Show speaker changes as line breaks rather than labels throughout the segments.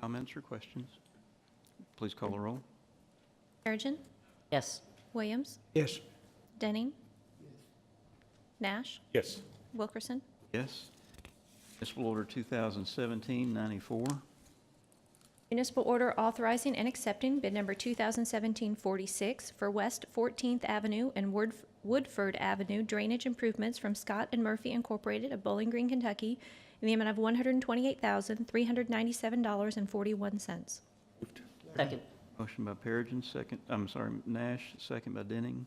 Comments or questions? Please call the roll.
Perigin.
Yes.
Williams.
Yes.
Denning. Nash.
Yes.
Wilkerson.
Yes. Municipal Order 2017-94.
Municipal order authorizing and accepting bid number 2017-46 for West 14th Avenue and Woodf- Woodford Avenue drainage improvements from Scott and Murphy Incorporated of Bowling Green, Kentucky, in the amount of $128,397.41.
Second.
Motion by Perigin, second, I'm sorry, Nash, second by Denning.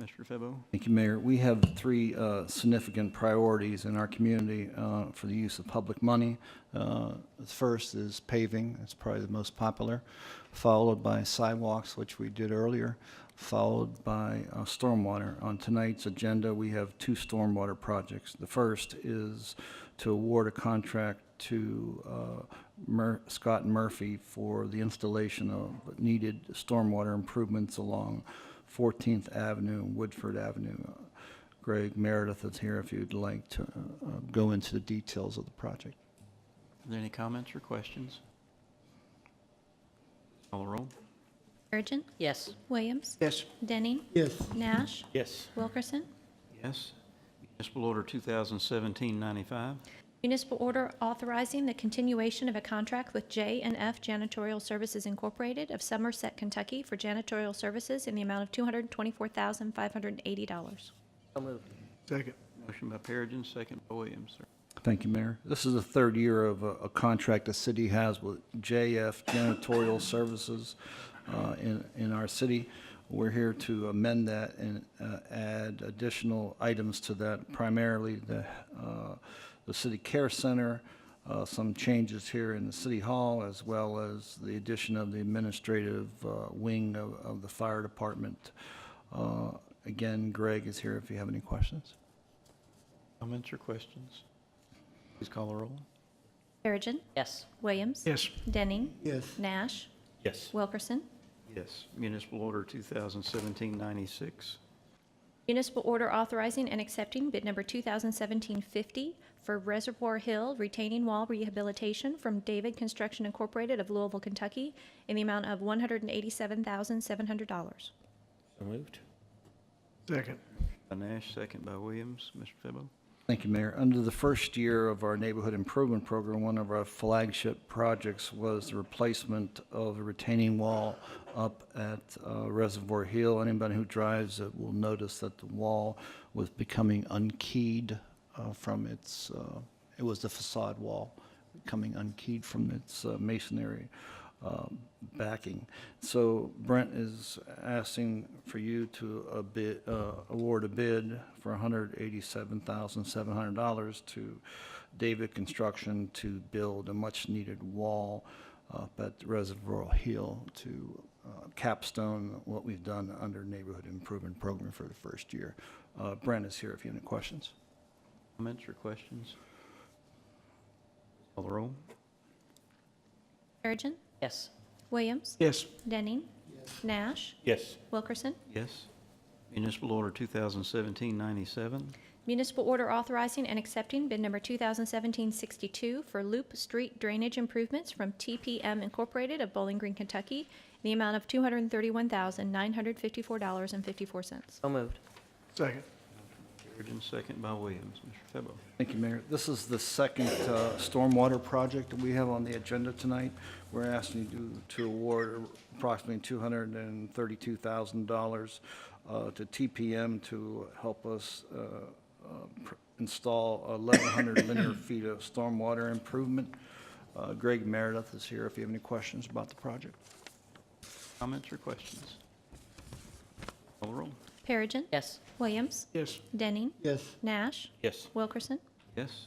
Mr. Febo,
Thank you, Mayor. We have three uh, significant priorities in our community uh, for the use of public money. Uh, The first is paving, that's probably the most popular, followed by sidewalks, which we did earlier, followed by uh, stormwater. On tonight's agenda, we have two stormwater projects. The first is to award a contract to uh, Mur- Scott Murphy for the installation of needed stormwater improvements along 14th Avenue and Woodford Avenue. Uh, Greg Meredith is here if you'd like to uh, uh, go into the details of the project.
are there any comments or questions? Call the roll.
Perigin.
Yes.
Williams.
Yes.
Denning.
Yes.
Nash.
Yes.
Wilkerson.
Yes. Municipal Order 2017-95.
Municipal order authorizing the continuation of a contract with J and F Janitorial Services Incorporated of Somerset, Kentucky for janitorial services in the amount of $224,580.
So moved.
Second.
Motion by Perigin, second by Williams. Are
Thank you, Mayor. This is the third year of a, a contract the city has with JF Janitorial Services uh, in, in our city. We're here to amend that and uh, add additional items to that, primarily the, uh, the city care center, uh, some changes here in the city hall, as well as the addition of the administrative uh, wing of, of the fire department. Uh, Again, Greg is here if you have any questions.
Comments or questions? Please call the roll.
Perigin.
Yes.
Williams.
Yes.
Denning.
Yes.
Nash.
Yes.
Wilkerson.
Yes. Municipal Order 2017-96.
Municipal order authorizing and accepting bid number 2017-50 for Reservoir Hill retaining wall rehabilitation from David Construction Incorporated of Louisville, Kentucky in the amount of $187,700.
So moved. Second.
By Nash, second by Williams. Mr. Febo,
Thank you, Mayor. Under the first year of our neighborhood improvement program, one of our flagship projects was the replacement of the retaining wall up at uh, Reservoir Hill. Anybody who drives it will notice that the wall was becoming unkeyed uh, from its, uh, it was the facade wall becoming unkeyed from its uh, masonry uh, backing. So Brent is asking for you to a bid, uh, award a bid for $187,700 to David Construction to build a much-needed wall up at Reservoir Hill to uh, capstone what we've done under Neighborhood Improvement Program for the first year. Uh, Brent is here if you have any questions.
comments or questions? Call the roll.
Perigin.
Yes.
Williams.
Yes.
Denning. Nash.
Yes.
Wilkerson.
Yes. Municipal Order 2017-97.
Municipal order authorizing and accepting bid number 2017-62 for Loop Street drainage improvements from TPM Incorporated of Bowling Green, Kentucky, in the amount of $231,954.54.
So moved.
Second.
Perigin, second by Williams. Mr. Febo.
Thank you, Mayor. This is the second uh, stormwater project that we have on the agenda tonight. We're asking you to- to award approximately $232,000 uh, to TPM to help us uh, uh, pr- install 1,100 linear feet of stormwater improvement. Uh, Greg Meredith is here if you have any questions about the project.
Comments or questions? Call the roll.
Perigin.
Yes.
Williams.
Yes.
Denning.
Yes.
Nash.
Yes.
Wilkerson.
Yes.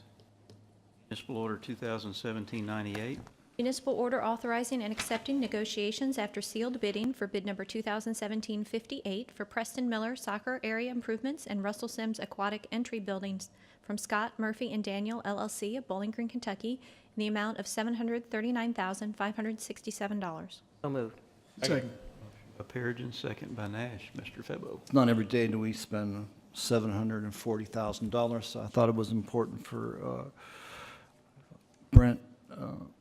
Municipal Order 2017-98.
Municipal order authorizing and accepting negotiations after sealed bidding for bid number 2017-58 for Preston Miller Soccer Area Improvements and Russell Sims Aquatic Entry Buildings from Scott Murphy and Daniel LLC of Bowling Green, Kentucky, in the amount of $739,567.
So moved.
Second.
By Perigin, second by Nash. Mr. Febo.
It's not every day that we spend $740,000, so I thought it was important for uh, Brent uh,